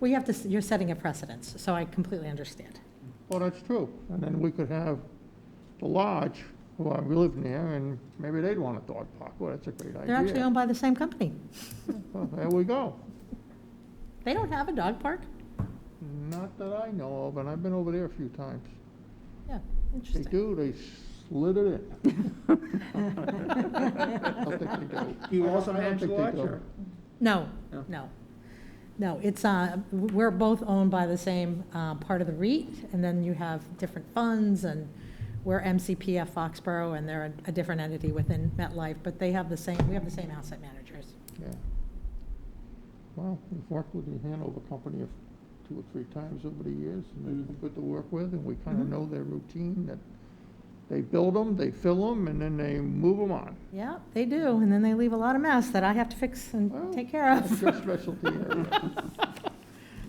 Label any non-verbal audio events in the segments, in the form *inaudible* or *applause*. We have to, s- you're setting a precedence, so I completely understand. Well, that's true. And then we could have the lodge, who are living there, and maybe they'd want a dog park. Well, that's a great idea. They're actually owned by the same company. Well, There we go. They don't have a dog park? Not that I know of, and I've been over there a few times. Yeah, They interesting. *laughs* do, they slid it in. I don't think they do. Do *laughs* you I don't- also I don't manage think the they lodge, do. or- No, No. no. No, it's, uh, we're both owned by the same uh, part of the REIT, and then you have different funds, and we're MCPF Foxborough, and they're a- a different entity within MetLife, but they have the same, we have the same asset managers. Yeah. Well, we've worked with the Hanover Company a- two or three times over the years, and they're good to work with, and we kind of Mhm. know their routine, that they build them, they fill them, and then they move them on. Yeah, they do, and then they leave a lot of mess that I have to fix Well, and take care That's of. *laughs* your specialty area.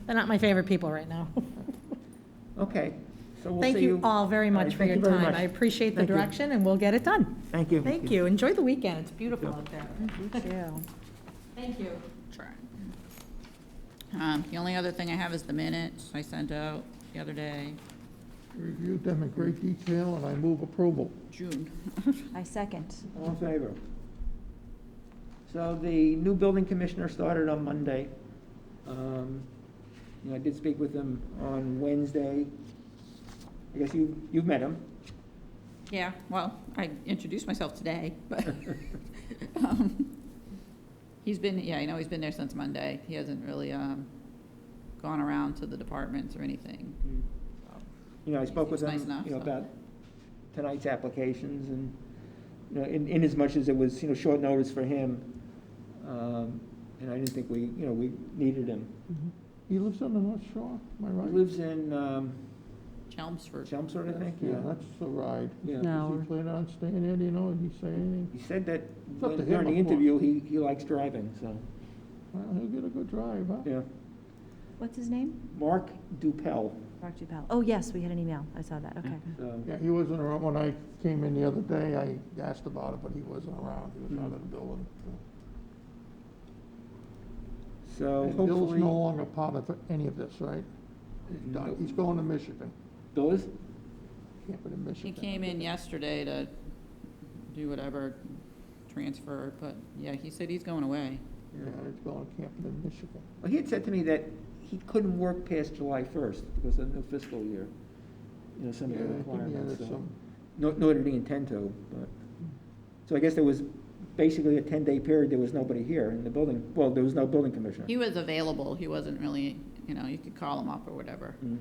They're not my favorite people right now. Okay, so we'll see you. Thank you all very All right, much for thank your you very time. much. I appreciate the Thank you. direction, and we'll get it done. Thank you. Thank you. Enjoy the weekend. It's beautiful you. out there. *laughs* Thank you. Sure. Um, The only other thing I have is the minutes I sent out the other day, Reviewed them in great detail, and I move approval. June. I second. All in favor? So the new building commissioner started on Monday. Um, You know, I did speak with him on Wednesday. I guess you, you've met him. *laughs* *laughs* Yeah, well, I introduced myself today, but *laughs* um, he's been, yeah, I know he's been there since Monday. He hasn't really um, gone around to the departments or anything. You know, I spoke with He's him, nice enough, you know, so. about tonight's applications and, you know, in, in as much as it was, you know, short notice for him. um, And I didn't think we, you know, we needed him. He lives on the North Shore, am I He right? lives in, um, Chelmsford. Chelmsford, I think, Yeah, yeah. that's the ride. Yeah. Does he plan on staying there, do you know, did he say anything? He said that up to when- him, during the of course. interview, he, he likes driving, so, Well, he'll get a good drive, huh? yeah. What's his name? Mark Dupel, Mark Dupel. Oh, yes, we had an email. I saw that, okay. so, Yeah, he wasn't around, when I came in the other day, I asked about it, but he wasn't around, he was out of the building. so And Bill's hopefully. no longer part of any of this, right? He's done. Nope. He's going to Michigan, Bill is? camping in He Michigan. came in yesterday to do whatever, transfer, but yeah, he said he's going away. Yeah, he's going camping in Michigan. Well, he had said to me that he couldn't work past July first because of the new fiscal year, you know, some of the Yeah, I think he requirements, added so. some, Nor, nor did he intend to, but, so I guess there was basically a ten-day period, there was nobody here in the building, well, there was no building commissioner. He was available. He wasn't really, you know, you could call him up or whatever. Mm.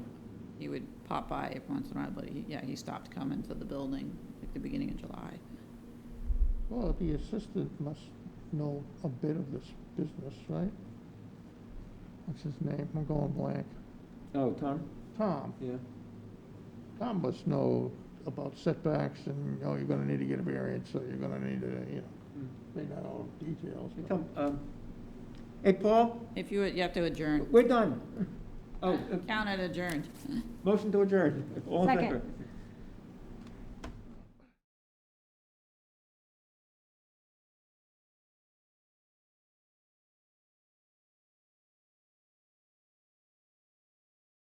He would pop by every once in a while, but he, yeah, he stopped coming to the building at the beginning of July. well, the assistant must know a bit of this business, right? What's his name? I'm going blank. Oh, Tom? Tom. Yeah. Tom must know about setbacks and, oh, you're gonna need to get a variance, so you're gonna need to, you know, Mm. they know all the details. but- Tom, um, hey, Paul, If you, would- you have to adjourn. *laughs* we're done. Oh, uh, Count it adjourned. *laughs* motion to adjourn, all in Second. favor?